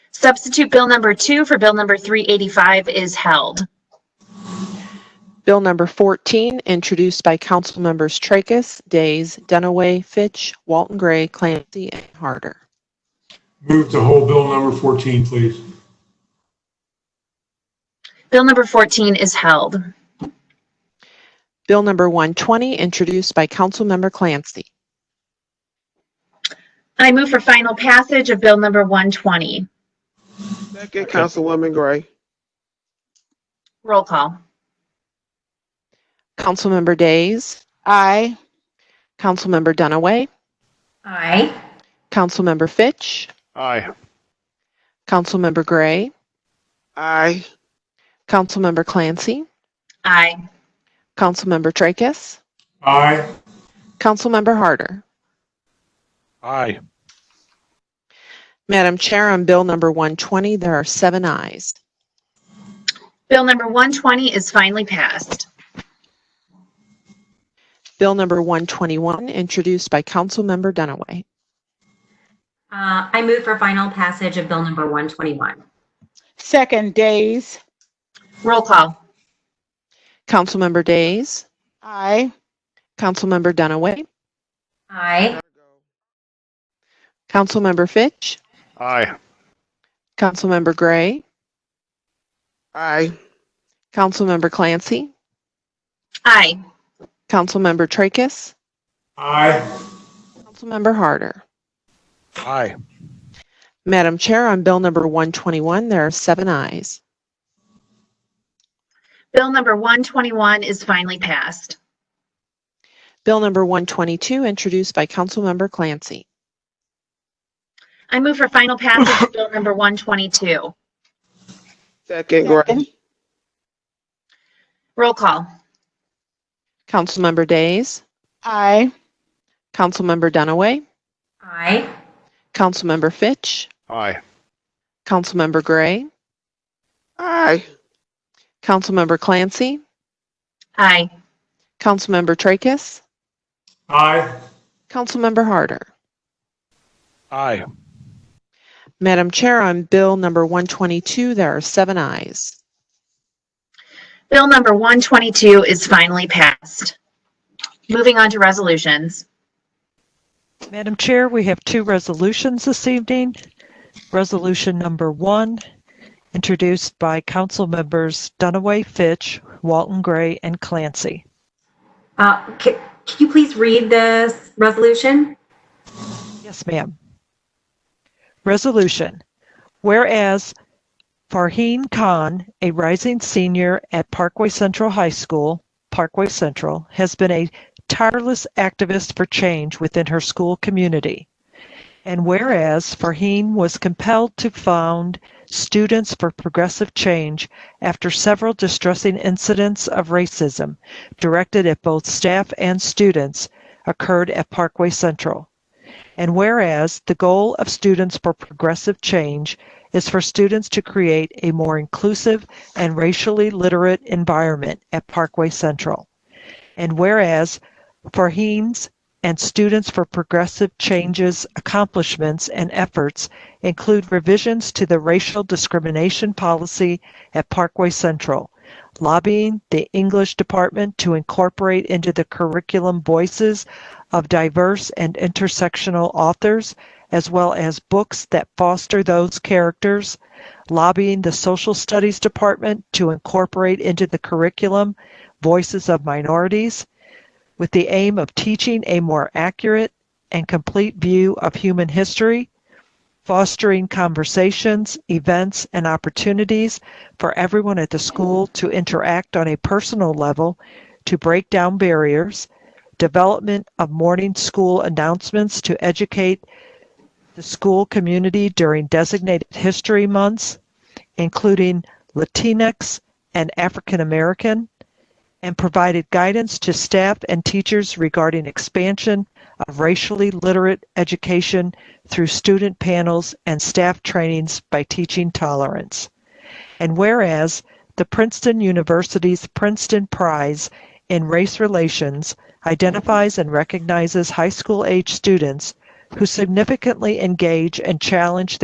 Substitute Bill number two for Bill number 385 is held. Bill number 14, introduced by council members Tracus, Days, Dunaway, Fitch, Walton Gray, Clancy, and Harder. Move to hold bill number 14, please. Bill number 14 is held. Bill number 120, introduced by council member Clancy. I move for final passage of Bill number 120. Second, Councilwoman Gray. Roll call. Councilmember Days, aye, councilmember Dunaway, Aye. councilmember Fitch, Aye. councilmember Gray, Aye. councilmember Clancy, Aye. councilmember Tracus, Aye. councilmember Harder. Aye. Madam Chair, on bill number 120, there are seven ayes. Bill number 120 is finally passed. Bill number 121, introduced by councilmember Dunaway. Uh, I move for final passage of Bill number 121. second days, Roll call. Councilmember Days, aye, councilmember Dunaway, Aye. Councilmember Fitch, Aye. Councilmember Gray, Aye. Councilmember Clancy, Aye. Councilmember Tracus, Aye. Councilmember Harder. Aye. Madam Chair, on Bill number 121, there are seven ayes. Bill number 121 is finally passed. Bill number 122, introduced by Councilmember Clancy. I move for final passage of Bill number 122. Second, Gray. Second. Roll call. Councilmember Days, aye, Councilmember Dunaway, Aye. Councilmember Fitch, Aye. Councilmember Gray, Aye. Councilmember Clancy, Aye. Councilmember Tracus, Aye. Councilmember Harder. Aye. Madam Chair, on Bill number 122, there are seven ayes. Bill number 122 is finally passed. Moving on to resolutions. Madam Chair, we have two resolutions this evening. Resolution number one, introduced by council members Dunaway, Fitch, Walton Gray, and Clancy. Uh, ca- Can you please read this resolution? Yes, ma'am. Resolution. Whereas Farheen Khan, a rising senior at Parkway Central High School, Parkway Central, has been a tireless activist for change within her school community. And whereas Farheen was compelled to found Students for Progressive Change after several distressing incidents of racism directed at both staff and students occurred at Parkway Central. And whereas the goal of Students for Progressive Change is for students to create a more inclusive and racially literate environment at Parkway Central. And whereas Farheen's and Students for Progressive Change's accomplishments and efforts include revisions to the racial discrimination policy at Parkway Central, lobbying the English department to incorporate into the curriculum voices of diverse and intersectional authors, as well as books that foster those characters, lobbying the Social Studies Department to incorporate into the curriculum voices of minorities, with the aim of teaching a more accurate and complete view of human history, fostering conversations, events, and opportunities for everyone at the school to interact on a personal level, to break down barriers, development of morning school announcements to educate the school community during designated history months, including Latinx and African American, and provided guidance to staff and teachers regarding expansion of racially literate education through student panels and staff trainings by teaching tolerance. And whereas the Princeton University's Princeton Prize in Race Relations identifies and recognizes high school age students who significantly engage and challenge